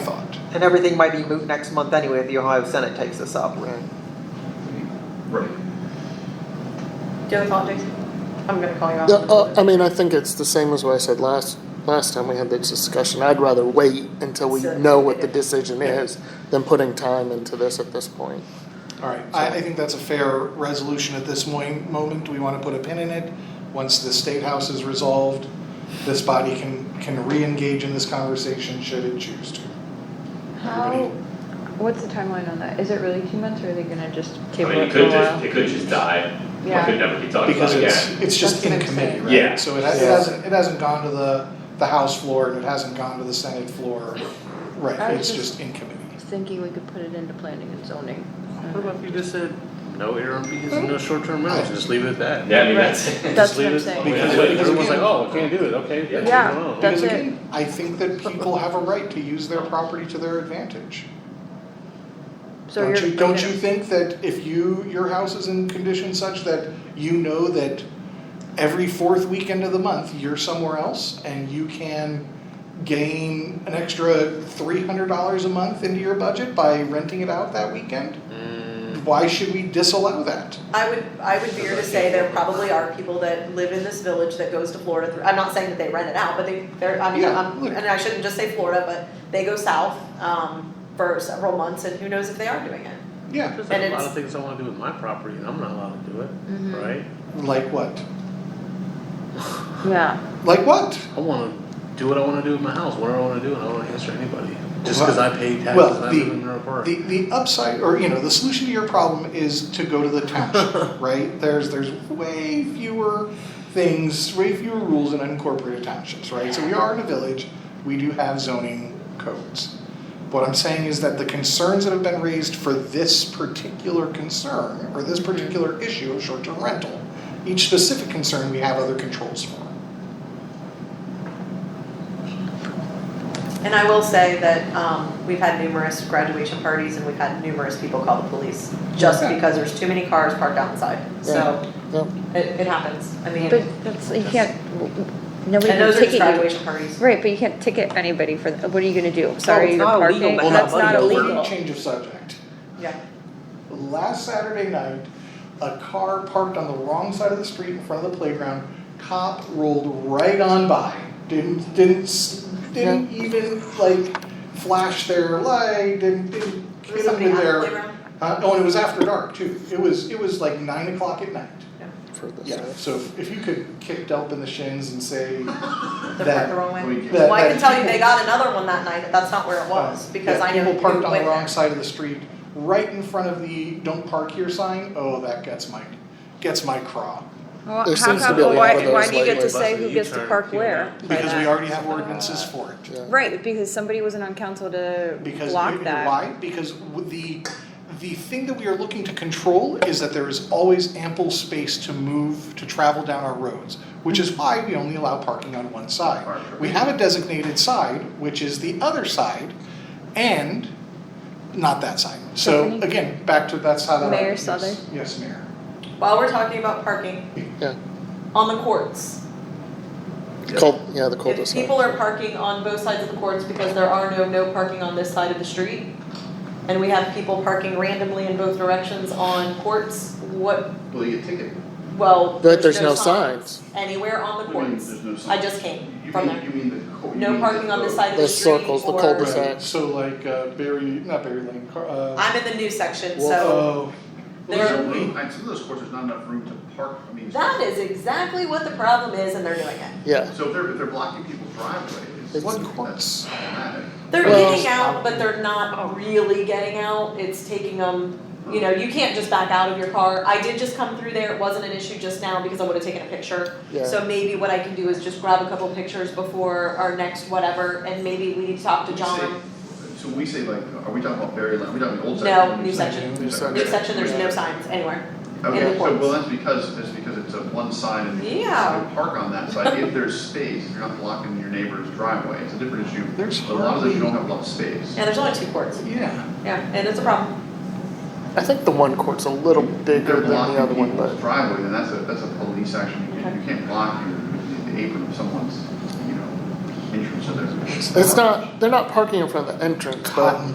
And everything might be moot next month anyway if the Ohio Senate takes this up. Right. Right. Do you have a thought, Jason? I'm gonna call you out. No, uh, I mean, I think it's the same as what I said last, last time we had this discussion. I'd rather wait until we So- know what the decision is than putting time into this at this point. All right, I, I think that's a fair resolution at this moi- moment. We want to put a pin in it. Once the State House is resolved, this body can, can re-engage in this conversation should it choose to. How, what's the timeline on that? Is it really two months or are they gonna just I table mean, it it for a could while? just, it could just die, Yeah. it could never be talked about Because again. it's, it's just That's what in I'm committee, saying. right? Yeah. So it ha- it Yeah. hasn't, it hasn't gone to the, the House floor and it hasn't gone to the Senate floor. I Right, was it's just- just in committee. Thinking we could put it into planning and zoning. What about if you just said, no interim meetings and no short-term rentals, and just leave it at that? Yeah, I mean, that's, That's Just what leave I'm it, saying. because Because- everyone's like, oh, I can't do it, okay, that's Yeah. wrong. That's Because it. again, I think that people have a right to use their property to their advantage. So Don't you're. you, don't you think that if you, your house is in condition such that you know that every fourth weekend of the month, you're somewhere else and you can gain an extra three hundred dollars a month into your budget by renting it out that weekend? Why should we disallow that? I would, I would veer to say there probably are people that live in this village that goes to Florida, through- I'm not saying that they rent it out, but they, they're, I mean, Yeah, I'm, look. and I shouldn't just say Florida, but they go south, um, for several months and who knows if they are doing it. Yeah, There's And like a lot it's- of things I wanna do with my property, and I'm not allowed to do it, Mhm. right? like what? Yeah, Like what? I wanna do what I wanna do with my house, whatever I wanna do, and I don't wanna answer anybody, just cause I pay taxes Well, and I the- live in Mineral Park. The, the upside, or you know, the solution to your problem is to go to the township, right? There's, there's way fewer things, way fewer rules in unincorporated townships, right? So we are in a village, we do have zoning codes. What I'm saying is that the concerns that have been raised for this particular concern, or this particular issue of short-term rental, each specific concern, we have other controls for. And I will say that, um, we've had numerous graduation parties and we've had numerous people call the police just Yeah. because there's too many cars parked outside, so Yep. it, it happens, I mean, but and that's, you can't, nobody can those are just ticket you. graduation parties. Right, but you can't ticket anybody for, what are you gonna do? Sorry, it's you're not illegal, parking, but it's that's not not money. illegal. Change of subject. Yeah. last Saturday night, a car parked on the wrong side of the street in front of the playground. Cop rolled right on by. Didn't didn't s- didn't even like flash their light. Didn't didn't Was get somebody under at the their. playground? Uh, oh, and it was after dark too. It was it was like nine o'clock at night. For this. Yeah. So if, if you could kick Delp in the shins and say They parked the that. wrong way. We- Uh, that- Well, I that can tell you, people- they got another one that night, but that's not where it was, because that I know who uh, People parked on went the wrong there. side of the street, right in front of the don't park here sign, oh, that gets my, gets my craw. Well, There how seems to come, be a lot why, of those why do you get to lately. say who Buses, gets to U-turn, park you where? by Because we that? already have ordinances for it. Yeah. Right, because somebody wasn't on council to Because, you block know that. why? Because w- the, the thing that we are looking to control is that there is always ample space to move, to travel down our roads, which is why we only allow parking on one side. We have a designated side, which is the other side, and not that side. So Tiffany? again, back to, that's how that. Mayor yes, Souther? Yes, Mayor. While we're talking about parking, Yeah. on the courts, Cul- yeah, the cul de if people are parking on both sides of the courts because there are no, no parking on this side of the street, and we have people parking randomly in both directions on courts, what, Will you get ticketed? well, But there's no signs. signs anywhere on the What do you mean courts. there's no sign? I just came You from mean- there. You mean the. co- you No mean parking on this road. side of the The street or. circles, the cul-de-sac. Right. So like uh, Barry, not Barry Lane, Car- uh, I'm in the new section, so. oh, uh, Well, there's There- no room. And some of those courts, there's not enough room to park, I mean. That is exactly what the problem is, and they're doing it. Yeah. So if they're, if they're blocking people's driveways. It's- what that's courts? problematic. They're Well- getting out, but they're not really getting out. It's taking them, you know, you can't just back out of your car. I did just come through there. It wasn't an issue just now because I would have taken a picture. Yeah. So maybe what I can do is just grab a couple pictures before our next whatever, and maybe we need to talk to We John. say- So we say like, are we talking about Berry Lane, are we talking about old No, section? or new section. New New section, there's no signs anywhere. in the Okay, so courts. well, that's because, that's because it's a one side and you Yeah. park on that side, if there's space, if you're not blocking your neighbor's driveway, it's a different issue. There's But A lot of those, you hardly- don't have a lot of space. Yeah, there's only two courts. Yeah, Yeah, and it's a problem. I think the one court's a little bigger They're than the other blocking one, people's but driveway, then that's a, that's a police action, you can't, you can't block your, the apron of someone's, you know, entrance of their. It's not, they're not parking in front of the entrance, but. Cotton